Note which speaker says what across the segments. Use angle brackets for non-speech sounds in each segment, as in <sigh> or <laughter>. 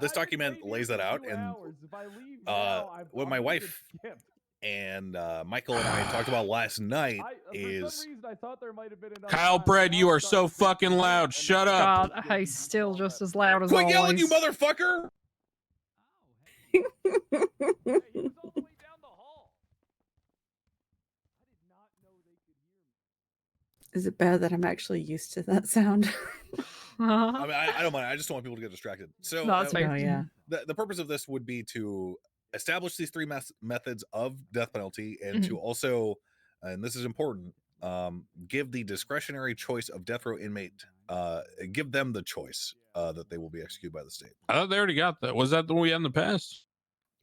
Speaker 1: this
Speaker 2: I could
Speaker 1: document
Speaker 2: stay here
Speaker 1: lays that
Speaker 2: for
Speaker 1: out,
Speaker 2: two
Speaker 1: and,
Speaker 2: hours. if I leave
Speaker 1: uh,
Speaker 2: now, I'm-
Speaker 1: what
Speaker 2: I'm
Speaker 1: my
Speaker 2: gonna
Speaker 1: wife
Speaker 2: skip.
Speaker 1: <laughs> and uh, Michael and I talked about last night.
Speaker 2: I, uh, for
Speaker 1: is-
Speaker 2: some reason, I thought there might have been another
Speaker 3: Kyle
Speaker 2: time,
Speaker 3: Bread,
Speaker 2: and
Speaker 3: you
Speaker 2: I
Speaker 3: are
Speaker 2: thought
Speaker 3: so
Speaker 2: it was gonna
Speaker 3: fucking
Speaker 2: be
Speaker 3: loud.
Speaker 2: another
Speaker 3: Shut
Speaker 2: time.
Speaker 3: up.
Speaker 4: God, I still just as loud as
Speaker 1: Quit
Speaker 4: always.
Speaker 1: yelling, you
Speaker 4: <laughs>
Speaker 1: motherfucker!
Speaker 2: Hey, he was all the way down the hall. I did not know they could hear me.
Speaker 5: Is it bad that I'm actually used to that sound? <laughs>
Speaker 1: I mean, I, I don't mind. I just don't want people to get distracted. So
Speaker 4: No, that's
Speaker 1: uh,
Speaker 4: fair.
Speaker 5: oh yeah.
Speaker 1: the, the purpose of this would be to establish these three mes- methods of death penalty and
Speaker 4: Mm-hmm.
Speaker 1: to also uh, and this is important um, give the discretionary choice of death row inmate uh, give them the choice uh, that they will be executed by the state
Speaker 3: I thought Oh, they already got that. Was that the one we had in the past?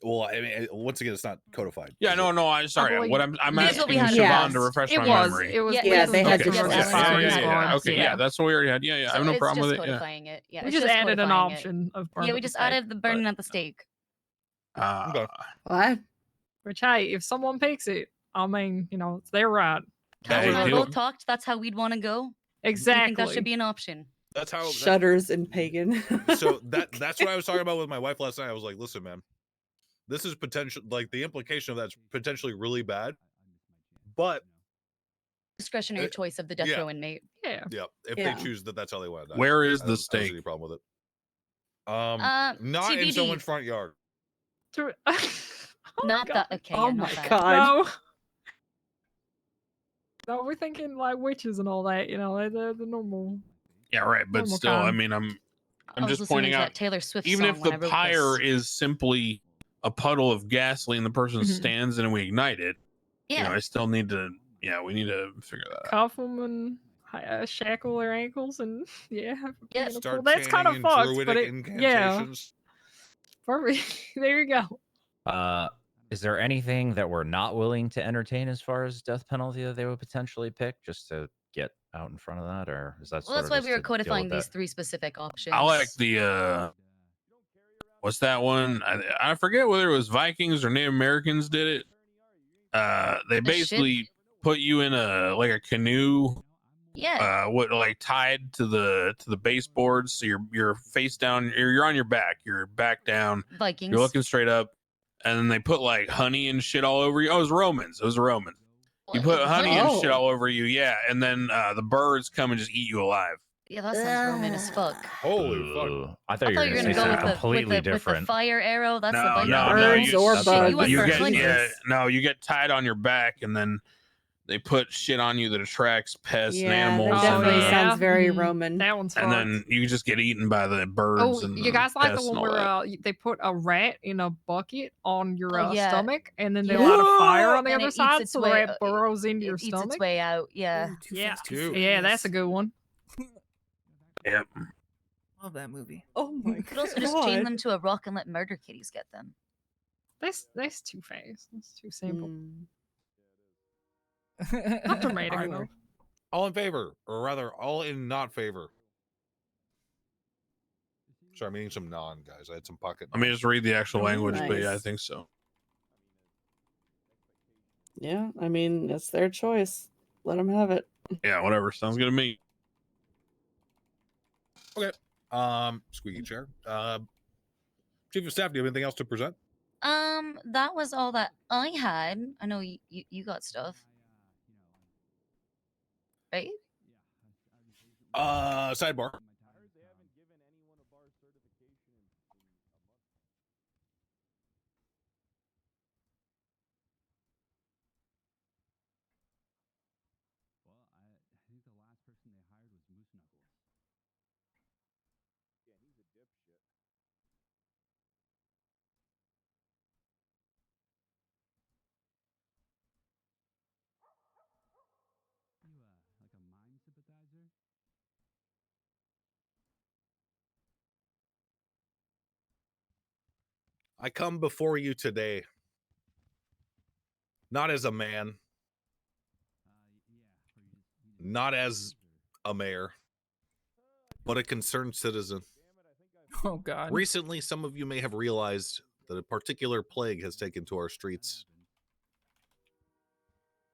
Speaker 1: well i mean uh, once again it's not codified
Speaker 3: Yeah,
Speaker 1: is
Speaker 3: no,
Speaker 1: it?
Speaker 3: no. I sorry.
Speaker 4: believe-
Speaker 3: What I'm I'm
Speaker 4: That's
Speaker 3: asking
Speaker 4: what we
Speaker 3: Siobhan
Speaker 4: had
Speaker 5: last.
Speaker 3: to refresh
Speaker 4: it
Speaker 3: my
Speaker 4: was.
Speaker 3: memory.
Speaker 4: It was.
Speaker 6: Yeah,
Speaker 4: we
Speaker 5: yeah,
Speaker 4: had
Speaker 5: they
Speaker 4: some
Speaker 5: had
Speaker 3: okay,
Speaker 5: to
Speaker 3: yeah,
Speaker 4: different
Speaker 5: just
Speaker 3: yeah, Oh,
Speaker 5: add
Speaker 3: yeah,
Speaker 5: on
Speaker 4: response
Speaker 5: that
Speaker 3: yeah, yeah, yeah.
Speaker 4: forms,
Speaker 3: Okay, yeah.
Speaker 4: yeah.
Speaker 3: that's what we already had. Yeah, yeah. I have
Speaker 6: So
Speaker 3: no
Speaker 6: it's
Speaker 3: problem with
Speaker 6: just
Speaker 3: it. Yeah.
Speaker 6: codifying it. Yeah,
Speaker 4: we
Speaker 6: it's
Speaker 4: just added an
Speaker 6: codifying it.
Speaker 4: option of
Speaker 6: Yeah,
Speaker 4: burning
Speaker 6: we
Speaker 4: at the
Speaker 6: just
Speaker 4: stake,
Speaker 6: added the burning
Speaker 4: but-
Speaker 6: at the stake.
Speaker 3: Uh,
Speaker 1: Okay.
Speaker 5: Well, I
Speaker 4: Which hey, if someone picks it, I mean, you know, it's their right.
Speaker 3: Yeah,
Speaker 6: Kyle and
Speaker 3: you
Speaker 6: I
Speaker 3: do.
Speaker 6: both talked. That's how we'd want to go. We
Speaker 4: Exactly.
Speaker 6: think that
Speaker 4: <laughs>
Speaker 6: should be an option.
Speaker 1: that's how Oh, that,
Speaker 5: shudders and pagan. <laughs>
Speaker 4: <laughs>
Speaker 1: so that that's what i was talking about with my wife last night i was like listen man this is potential like the implication of that's potentially really bad but
Speaker 6: Discretionary
Speaker 1: Uh,
Speaker 6: choice of the death
Speaker 1: yeah.
Speaker 6: row inmate.
Speaker 4: yeah.
Speaker 1: yeah if
Speaker 5: Yeah.
Speaker 1: they choose that that's how they want to die.
Speaker 3: Where is
Speaker 1: I don't-
Speaker 3: the
Speaker 1: I don't see
Speaker 3: stake?
Speaker 1: any problem with it um
Speaker 6: Uh,
Speaker 1: Not in
Speaker 6: TBD.
Speaker 1: someone's front yard.
Speaker 4: To- Oh,
Speaker 6: Not
Speaker 4: God.
Speaker 6: that. Okay.
Speaker 5: oh
Speaker 6: yeah,
Speaker 5: my
Speaker 6: not that.
Speaker 5: god.
Speaker 4: No. No, we're thinking like witches and all that, you know, they're, they're the normal.
Speaker 3: Yeah, right. But
Speaker 4: Normal
Speaker 3: still, I
Speaker 4: time.
Speaker 3: mean, I'm I'm
Speaker 6: I was
Speaker 3: just
Speaker 6: listening
Speaker 3: pointing
Speaker 6: to
Speaker 3: out,
Speaker 6: that Taylor Swift.
Speaker 3: even
Speaker 6: song
Speaker 3: if
Speaker 6: when
Speaker 3: the
Speaker 6: I wrote
Speaker 3: pyre
Speaker 6: this.
Speaker 3: is simply a puddle of gasoline, the person
Speaker 4: Mhm.
Speaker 3: stands in and we ignite it.
Speaker 6: yeah,
Speaker 3: You know, I still need to. Yeah, we need to figure that out.
Speaker 4: Cuff them and uh, shackle their ankles and <laughs> yeah. have a
Speaker 6: Yeah.
Speaker 4: pinnacle. that's kind of fucked, but it, yeah. Perfect. <laughs> there you go.
Speaker 7: Uh, is there anything that we're not willing to entertain as far as death penalty that they would potentially pick just to get out in front of that, or is that?
Speaker 6: well,
Speaker 7: sort
Speaker 6: that's
Speaker 7: of
Speaker 6: why
Speaker 7: just
Speaker 6: we were
Speaker 7: to deal with
Speaker 6: codifying these
Speaker 7: that?
Speaker 6: three specific options.
Speaker 3: I like the uh, what's that one? I, I forget whether it was Vikings or Native Americans did it. Uh, they
Speaker 6: The ship?
Speaker 3: basically put you in a like a canoe
Speaker 6: Yeah,
Speaker 3: uh what like tied to the to the baseboards so you're you're face down you're, you're on your back you're back down
Speaker 6: Vikings.
Speaker 3: you're looking straight up and then they put like honey and shit all over you oh it was romans it was romans you
Speaker 6: Well,
Speaker 3: put honey and shit
Speaker 6: oh,
Speaker 3: all over you yeah and then uh the birds come and just eat you alive
Speaker 6: Yeah, that sounds Roman as fuck.
Speaker 1: Holy fuck.
Speaker 7: Ooh, I
Speaker 6: I
Speaker 7: thought you were going
Speaker 6: gonna
Speaker 7: to say
Speaker 6: go with
Speaker 7: something
Speaker 6: the,
Speaker 7: completely
Speaker 6: with the, With the
Speaker 7: different.
Speaker 6: fire arrow. That's
Speaker 3: no,
Speaker 6: the
Speaker 3: no,
Speaker 7: Yeah,
Speaker 3: no,
Speaker 5: Birds
Speaker 3: you,
Speaker 5: or
Speaker 7: that's
Speaker 6: shit,
Speaker 7: what
Speaker 3: you
Speaker 6: you went
Speaker 7: I
Speaker 6: for
Speaker 7: thought.
Speaker 3: get
Speaker 6: honey.
Speaker 3: yeah, no you get tied on your back and then they put shit on you that attracts pests
Speaker 5: yeah,
Speaker 3: and
Speaker 5: that
Speaker 3: animals and,
Speaker 5: definitely
Speaker 3: uh,
Speaker 4: yeah.
Speaker 5: sounds very
Speaker 4: Mm.
Speaker 6: Mm-hmm.
Speaker 5: Roman.
Speaker 4: That one's
Speaker 3: and
Speaker 4: fucked.
Speaker 3: then you just get eaten by the birds
Speaker 4: Oh,
Speaker 3: and
Speaker 4: you guys like the
Speaker 3: pests and
Speaker 4: one
Speaker 3: all
Speaker 4: where
Speaker 3: that.
Speaker 4: uh, y- they put a rat in a bucket on your
Speaker 6: Oh,
Speaker 4: uh,
Speaker 6: yeah.
Speaker 4: stomach, and then they
Speaker 6: Yeah.
Speaker 4: light a fire on the
Speaker 6: And it
Speaker 4: other
Speaker 6: eats
Speaker 4: side,
Speaker 6: its
Speaker 4: so
Speaker 6: way-
Speaker 4: the
Speaker 6: uh,
Speaker 4: rat
Speaker 6: it-
Speaker 4: burrows into your
Speaker 6: It eats
Speaker 4: stomach.
Speaker 6: its way out. Yeah.
Speaker 4: yeah,
Speaker 8: Dude.
Speaker 4: yeah, that's a good one.
Speaker 3: Yep.
Speaker 8: Love that movie.
Speaker 5: Oh my
Speaker 6: You could also just chain them to a rock and let murder kitties get them.
Speaker 4: That's that's too fast. That's too simple.
Speaker 5: Mm.
Speaker 4: Not dramatic
Speaker 8: Armor.
Speaker 4: enough.
Speaker 1: All in favor, or rather, all in not favor. Sorry, I'm eating some non, guys. I had some pocket.
Speaker 3: Let me just read the actual
Speaker 5: Oh,
Speaker 3: language, but yeah, I
Speaker 5: nice.
Speaker 3: think so.
Speaker 5: Yeah, I mean it's their choice. Let them have it.
Speaker 3: Yeah, whatever. Sounds good to me.
Speaker 1: Um, squeaky chair. Uh, Chief of Staff, do you have anything else to present?
Speaker 6: Um, that was all that I had. I know you you, you got stuff. Right?
Speaker 1: Uh, sidebar. I come before you today, not as a man, not as a mayor, but a concerned citizen.
Speaker 8: Oh god.
Speaker 1: Recently, some of you may have realized that a particular plague has taken to our streets.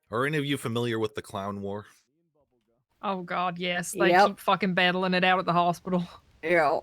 Speaker 1: Are any of you familiar with the Clown War?
Speaker 4: Oh God, yes, they
Speaker 5: Yep.
Speaker 4: keep fucking battling it out at the hospital.
Speaker 5: Yeah.